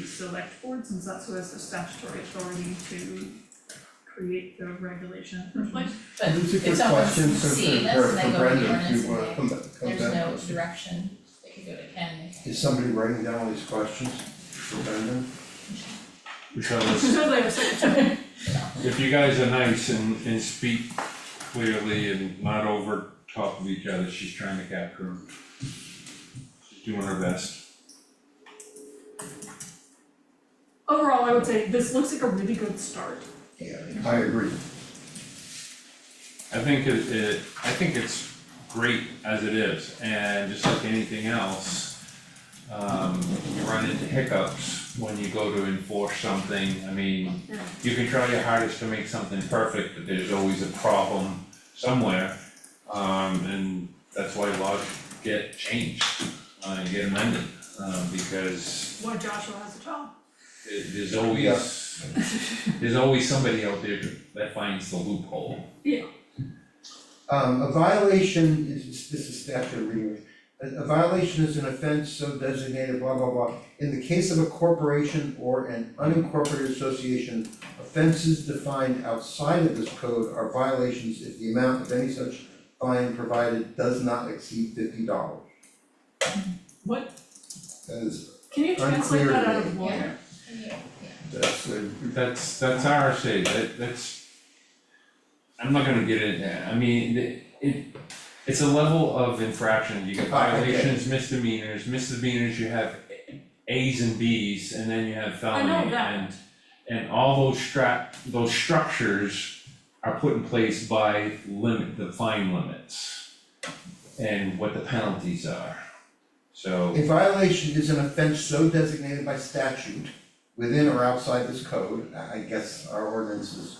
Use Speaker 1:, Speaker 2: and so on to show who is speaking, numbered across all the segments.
Speaker 1: the select board, since that's who has the statutory authority to create the regulation in the first place.
Speaker 2: But
Speaker 3: It's a
Speaker 2: if
Speaker 3: good
Speaker 2: someone's
Speaker 3: question, so for
Speaker 2: seeing
Speaker 3: for
Speaker 2: this and
Speaker 3: for
Speaker 2: they go to the
Speaker 3: Brendan
Speaker 2: ordinance
Speaker 3: to uh
Speaker 2: and
Speaker 3: come back, come
Speaker 2: they,
Speaker 3: back.
Speaker 2: there's no direction, they could go to Ken, they can-
Speaker 3: Is somebody writing down all these questions for Brendan?
Speaker 4: Michelle, if-
Speaker 1: So they have secretary.
Speaker 4: if you guys are nice and, and speak clearly and not over top of each other, she's trying to capture him. She's doing her best.
Speaker 1: Overall, I would say this looks like a really good start.
Speaker 3: Yeah. I agree,
Speaker 4: I think it, it, I think it's great as it is, and just like anything else, um, you run into hiccups when you go to enforce something, I mean,
Speaker 1: Yeah.
Speaker 4: you can try your hardest to make something perfect, but there's always a problem somewhere. Um, and that's why laws get changed, uh, and get amended, um, because
Speaker 1: Why Joshua has a job.
Speaker 4: it- there's always, there's always somebody out there that finds the loophole.
Speaker 3: um a violation is, this is statute reading, a a violation is an offense so designated blah blah blah. In the case of a corporation or an unincorporated association, offenses defined outside of this code are violations if the amount of any such fine provided does not exceed fifty dollars.
Speaker 1: What?
Speaker 3: That is,
Speaker 1: Can you translate
Speaker 3: Unclear
Speaker 1: that out
Speaker 3: to
Speaker 1: of
Speaker 3: me.
Speaker 1: lawyer?
Speaker 2: yeah,
Speaker 3: that's a
Speaker 4: That's, that's RSA, that, that's, I'm not gonna get into, that. I mean, it, it, it's a level of infraction, you get
Speaker 3: Ah, okay.
Speaker 4: violations, misdemeanors, misdemeanors, you have As and Bs, and then you have
Speaker 1: know
Speaker 4: felony and
Speaker 1: that.
Speaker 4: and all those strat, those structures are put in place by limit, the fine limits and what the penalties are. So,
Speaker 3: A violation is an offense so designated by statute within or outside this code, I I guess our ordinances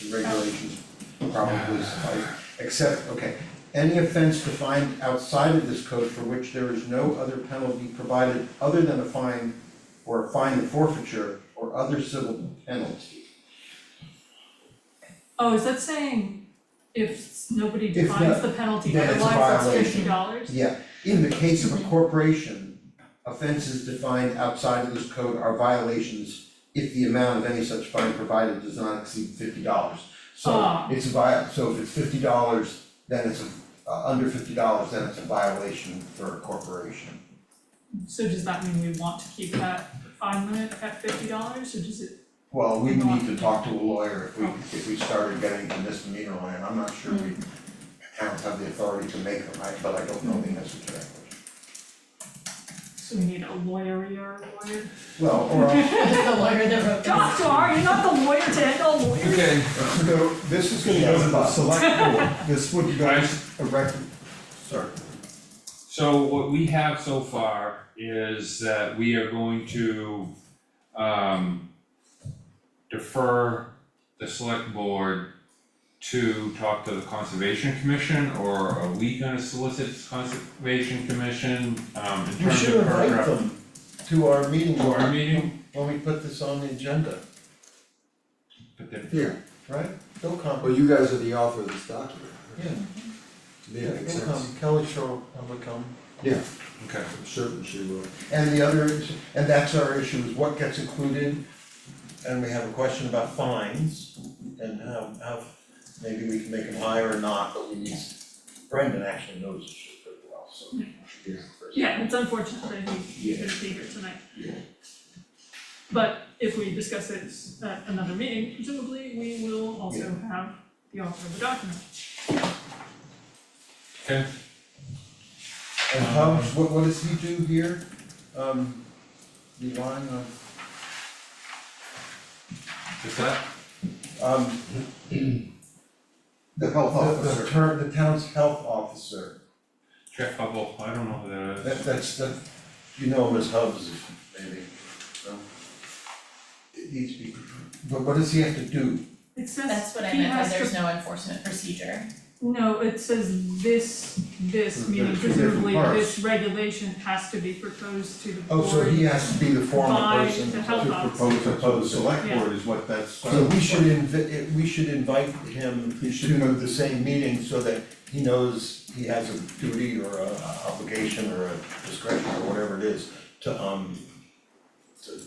Speaker 3: and regulations probably suffice, except, okay. Any offense defined outside of this code for which there is no other penalty provided other than a fine or a fine and forfeiture or other civil penalty.
Speaker 1: Oh, is that saying if nobody
Speaker 3: If
Speaker 1: defines
Speaker 3: not,
Speaker 1: the penalty,
Speaker 3: then
Speaker 1: otherwise
Speaker 3: it's a
Speaker 1: that's
Speaker 3: violation.
Speaker 1: fifty dollars?
Speaker 3: Yeah, in the case of a corporation, offenses defined outside of this code are violations if the amount of any such fine provided does not exceed fifty dollars. So
Speaker 1: Ah.
Speaker 3: it's a vi- so if it's fifty dollars, then it's a, uh, under fifty dollars, then it's a violation for a corporation.
Speaker 1: So does that mean we want to keep that fine limit at fifty dollars, or does it,
Speaker 3: Well, we need to talk to a lawyer if we, if we started getting to misdemeanor land, I'm not sure we towns have the authority to make them, I, but I don't know the answer to that question.
Speaker 1: so we need a lawyer or a lawyer?
Speaker 3: Well, or a-
Speaker 2: yeah. The lawyer that wrote this,
Speaker 1: Joshua, are you not the lawyer to handle lawyers?
Speaker 4: okay,
Speaker 5: So this is gonna go to the select board, this would go
Speaker 4: Guys.
Speaker 5: a rec, sorry,
Speaker 4: So what we have so far is that we are going to um defer the select board to talk to the conservation commission, or are we gonna solicit conservation commission um in
Speaker 5: you
Speaker 4: terms
Speaker 5: should
Speaker 4: of
Speaker 5: invite
Speaker 4: paragraph
Speaker 5: them,
Speaker 3: to our meeting.
Speaker 4: to our meeting?
Speaker 3: when we put this on the agenda,
Speaker 4: But then
Speaker 6: Here,
Speaker 3: right? They'll come,
Speaker 6: well, you guys are the author of this document.
Speaker 3: yeah,
Speaker 6: To me,
Speaker 3: yeah,
Speaker 6: it makes
Speaker 3: they'll
Speaker 6: sense.
Speaker 3: come, Kelly Shaw will come.
Speaker 4: okay,
Speaker 6: I'm certain she will.
Speaker 3: And the other, is- and that's our issue, is what gets included, and we have a question about fines, and how, how, maybe we can make them higher or not, but we need, Brendan actually knows this shit pretty well, so. he's the first.
Speaker 1: Yeah, it's unfortunate that he couldn't be here tonight. But if we discuss it at another meeting, presumably we will also have the author of the document.
Speaker 4: okay,
Speaker 3: And how, Um, what, what does he do here? Um, relying on,
Speaker 4: is that,
Speaker 3: um,
Speaker 6: The health
Speaker 3: the, the turn, the town's health officer.
Speaker 4: check bubble, I don't know who that
Speaker 3: That,
Speaker 4: is.
Speaker 3: that's, that, you know him as Hubs, maybe, no? It needs to be, but what does he have to do?
Speaker 1: It
Speaker 2: that's
Speaker 1: says,
Speaker 2: what I
Speaker 1: he
Speaker 2: meant, by
Speaker 1: has
Speaker 2: there's
Speaker 1: to,
Speaker 2: no enforcement procedure.
Speaker 1: no, it says this, this,
Speaker 3: There's
Speaker 1: meaning
Speaker 3: two different
Speaker 1: presumably
Speaker 3: parts.
Speaker 1: this regulation has to be proposed to the board.
Speaker 3: Oh, so he has to be the formal
Speaker 1: By
Speaker 3: person
Speaker 1: the
Speaker 3: to
Speaker 1: health officer.
Speaker 3: propose,
Speaker 5: propose
Speaker 3: propose it.
Speaker 5: select board is what that's.
Speaker 3: So we should invi- it- we should invite him
Speaker 5: He should
Speaker 3: to
Speaker 5: know.
Speaker 3: the same meeting so that he knows he has a duty or a obligation or a discretion or whatever it is to, um, to